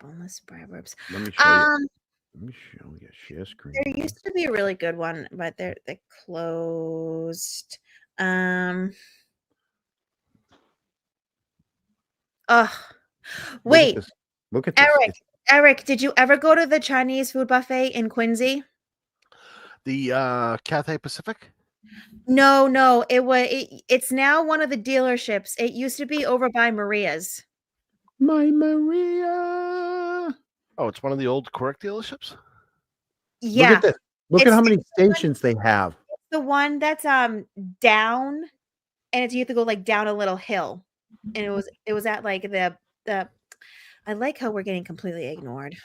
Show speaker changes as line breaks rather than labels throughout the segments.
boneless proverbs.
Let me show you.
Um,
Let me show you. Share screen.
there used to be a really good one, but they're they closed. Um, oh,
Look at
wait,
this. Look at this.
Eric,
It's
Eric, did you ever go to the Chinese food buffet in Quincy?
The uh, Cathay Pacific.
No, no, it was. It, it's now one of the dealerships. It used to be over by Maria's.
my Maria.
Oh, it's one of the old Quirk dealerships.
Yeah,
Look at this. Look at
It's-
how many stations they have.
the one that's um down, and it's you have to go like down a little hill, and it
Mm-hmm.
was it was at like the the. I like how we're getting completely ignored.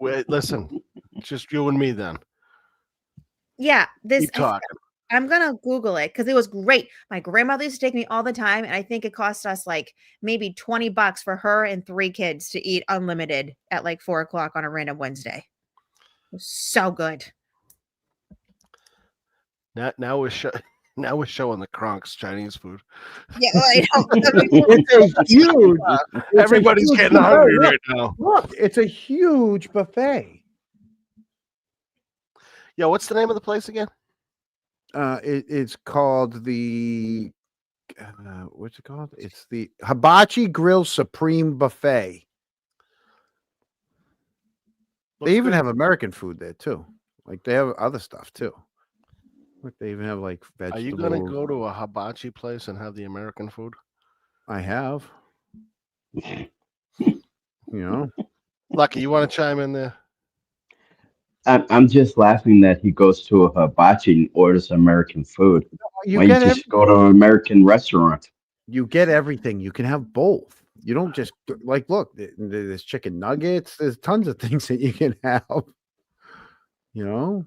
Wait, listen, it's just you and me then.
Yeah, this
Keep
I f-
talking.
I'm gonna Google it because it was great. My grandmother used to take me all the time, and I think it cost us like maybe 20 bucks for her and three kids to eat unlimited at like four o'clock on a random Wednesday. It was so good.
Now, now we're show- now we're showing the Kronk's Chinese food.
Yeah, well, I know.
Oh, It's a huge. it's a
Everybody's
huge
getting
buffet.
hungry
Look,
right now.
Look, it's a huge buffet.
Yeah, what's the name of the place again?
Uh, it, it's called the uh, what's it called? It's the Hibachi Grill Supreme Buffet.
Looks
they even
good.
have American food there too. Like they have other stuff too. Like they even have like
Are
vegetables.
you gonna go to a hibachi place and have the American food?
I have. You know,
Lucky, you want to chime in there?
I'm, I'm just laughing that he goes to a hibachi and orders American food.
you
Why you
get
just
ev-
go to an American restaurant?
you get everything. You can have both. You don't just like look. th- th- There's chicken nuggets. There's tons of things that you can have. You know,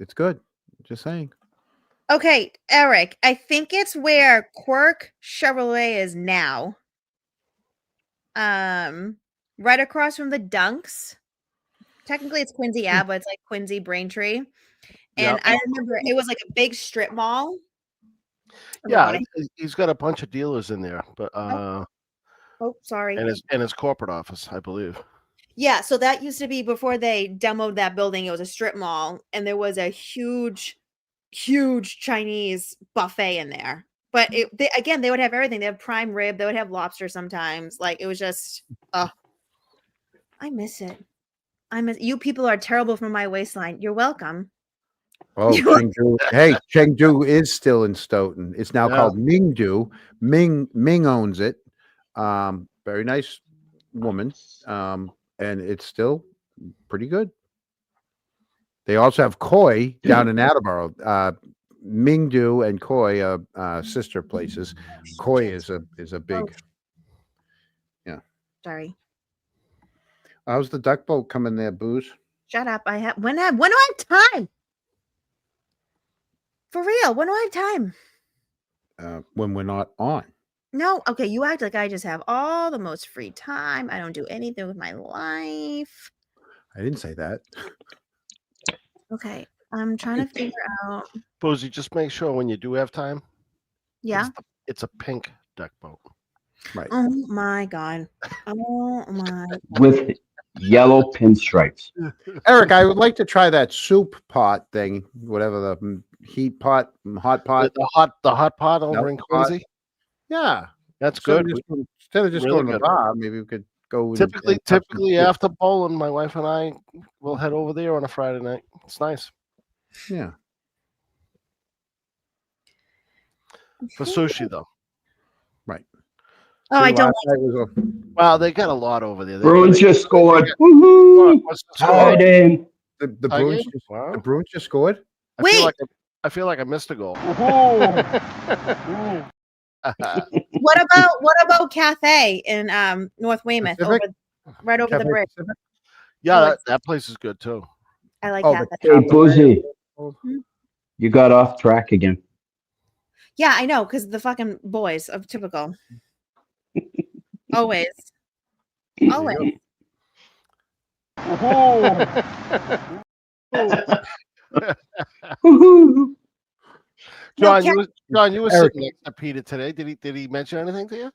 it's good. Just saying.
okay, Eric, I think it's where Quirk Chevrolet is now. Um, right across from the Dunks. Technically, it's Quincy Ave, but it's like Quincy Braintree. And
Yep.
I remember it was like a big strip mall. I
Yeah,
forgot it.
he- he's got a bunch of dealers in there, but uh,
Oh, sorry.
and his and his corporate office, I believe.
Yeah, so that used to be before they demoed that building. It was a strip mall, and there was a huge, huge Chinese buffet in there. But it, they, again, they would have everything. They have prime rib. They would have lobster sometimes. Like it was just, oh, I miss it. I miss you. People are terrible from my waistline. You're welcome.
Oh,
You-
Chengdu. hey, Chengdu is still in Stoughton. It's now
Yeah.
called Mingdu. Ming Ming owns it. Um, very nice woman. Um, and it's still pretty good. They also have Koi down in Attleboro. Uh, Mingdu and Koi are uh, sister places. Koi is a is a big.
Sorry.
How's the duck boat coming there, Booze?
Shut up. I have when I when do I have time? For real, when do I have time?
Uh, when we're not on.
No, okay, you act like I just have all the most free time. I don't do anything with my life.
I didn't say that.
Okay, I'm trying to figure out.
Boozy, just make sure when you do have time,
Yeah.
it's, it's a pink duck boat.
Right.
Oh my god. Oh my.
with yellow pinstripes.
Eric, I would like to try that soup pot thing, whatever the mm, heat pot, mm, hot
The,
pot.
the hot the hot pot over
Nope,
in
hot.
Quincy.
Yeah,
That's
instead of
good.
just- Instead of just
Really
going to the
good.
bar, maybe we could go. and-
typically,
and have some
typically
soup.
after bowling, my wife and I will head over there on a Friday night. It's nice
Yeah,
for sushi though.
Oh, I
See,
don't.
last night was a-
Wow, they got a lot over there. They-
Bruins
they-
just scored.
What-
Woohoo!
what's the score?
Tied in.
The, the
Tie
Bruins,
game?
just,
Wow.
the Bruins just scored.
I feel
Wait.
like I, I feel like I missed a goal.
What about what about Cathay in um North Weymouth, over,
Pacific?
right over the
Cafe
bridge?
Pacific?
yeah,
Oh,
that, that place is good too.
I like
Oh, the
Cathay.
Hey, Boozy, you got off track again.
Yeah, I know, because the fucking boys of typical. Always. Always.
Woohoo!
No,
John,
Cat-
you was, John, you were
Eric.
sitting next to Peter today. Did he did he mention anything to you?